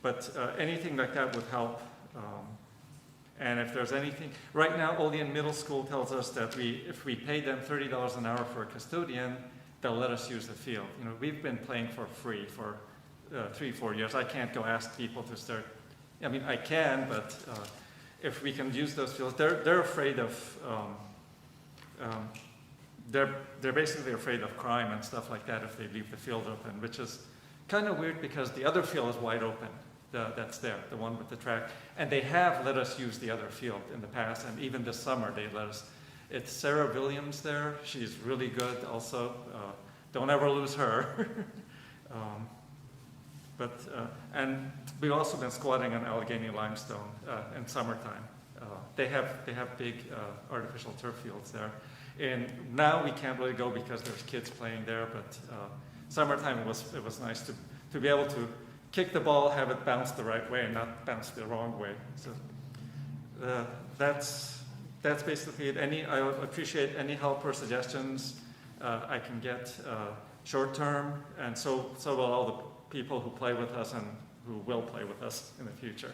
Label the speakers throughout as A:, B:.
A: But uh, anything like that would help. Um, And if there's anything, right now, Olean Middle School tells us that we, if we pay them thirty dollars an hour for a custodian, they'll let us use the field. You know, we've been playing for free for uh, three, four years. I can't go ask people to start, I mean, I can, but uh, if we can use those fields, they're, they're afraid of, um, um, they're, they're basically afraid of crime and stuff like that if they leave the field open, which is kind of weird because the other field is wide open, the, that's there, the one with the track. And they have let us use the other field in the past, and even this summer they let us. It's Sarah Williams there. She's really good also. Uh, don't ever lose her. um, but, uh, and we've also been squatting on Allegheny limestone uh, in summertime. Uh, they, have, they have big uh, artificial turf fields there. And now we can't really go because there's kids playing there, but uh, summertime it was, it was nice to, to be able to kick the ball, have it bounce the right way and not bounce the wrong way. So uh, that's, that's basically it. Any, I would appreciate any help or suggestions uh, I can get uh, short term, and so, so will all the people who play with us and who will play with us in the future.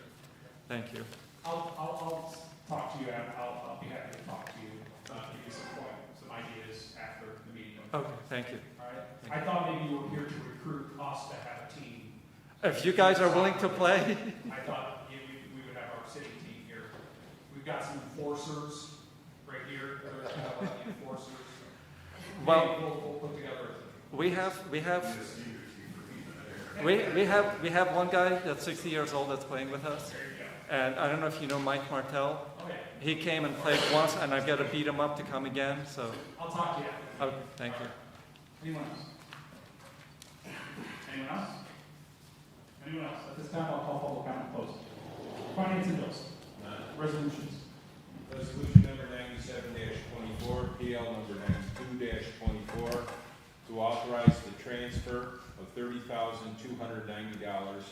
A: Thank you.
B: I'll, I'll, I'll talk to you, and I'll, I'll be happy to talk to you, uh, give you some point, some ideas after the meeting. All
A: Okay, thank you.
B: right? I thought maybe you were here to recruit us to have a team.
A: If you guys are willing to play,
B: I thought you- we, we would have our city team here. We've got some enforcers right here, there's kind of like the uh, enforcers.
A: Well-
B: Maybe We'll, we'll put together a team.
A: we have, we have, we, we have, we have one guy that's 60 years old that's playing with us,
B: There you
A: and I don't know if you know Mike Martell.
B: go. Okay,
A: He came and played once, and I've got to beat him up to come again, so,
B: I'll talk to you after.
A: oh, thank you.
B: Anyone else? Anyone else? Anyone else? At this time, I'll call public comment closed. Finance and bills. Resolutions.
C: Resolution number ninety-seven twenty-four, PL number ninety-two twenty-four, to authorize the transfer of thirty thousand two hundred ninety dollars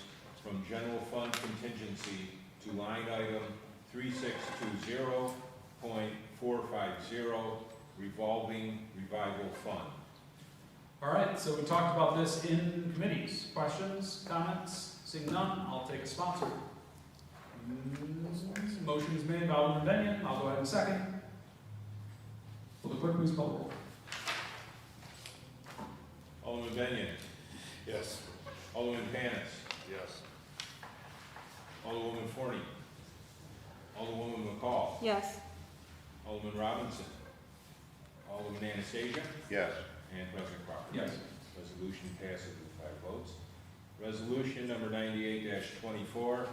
C: from general fund contingency to line item three six two zero point four five zero revolving revival fund.
B: All right, so we talked about this in committees. Questions, comments? Seeing none, I'll take a sponsor. Mm, Motion is made by Alderman Benyon. I'll go ahead and second. Will the clerk please call the roll?
C: Alderman Benyon,
D: Yes.
C: Alderman Panis,
D: Yes.
C: Alderwoman Forney, Alderwoman McCall,
E: Yes.
C: Alderman Robinson, Alderman Anastasia,
D: Yes.
C: and President Crawford.
B: Yes.
C: Resolution passes with five votes. Resolution number ninety-eight twenty-four,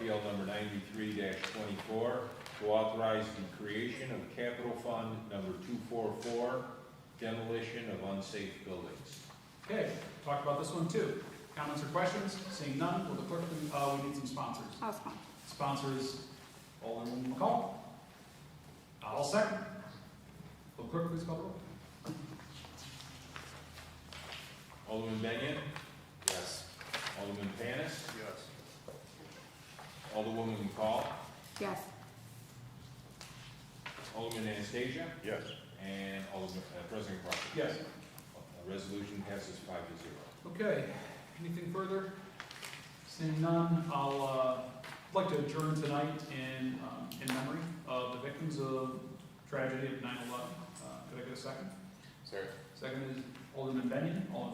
C: PL number ninety-three twenty-four, to authorize the creation of capital fund number two-four-four, demolition of unsafe buildings.
B: Okay, talked about this one too. Comments or questions? Seeing none, will the clerk, please- uh, we need some sponsors.
E: I'll sponsor.
B: Sponsors, Alderman McCall. I'll second. Will clerk please call the roll?
C: Alderman Benyon,
D: Yes.
C: Alderman Panis,
D: Yes.
C: Alderwoman McCall,
E: Yes.
C: Alderman Anastasia,
D: Yes.
C: and Alderman, uh, President Crawford.
B: Yes.
C: Uh, Resolution passes five to zero.
B: Okay, anything further? Seeing none, I'll, uh, like to adjourn tonight in, um, in memory of the victims of tragedy of nine eleven. Uh, could I get a second?
D: Sir.
B: Second is Alderman Benyon, all in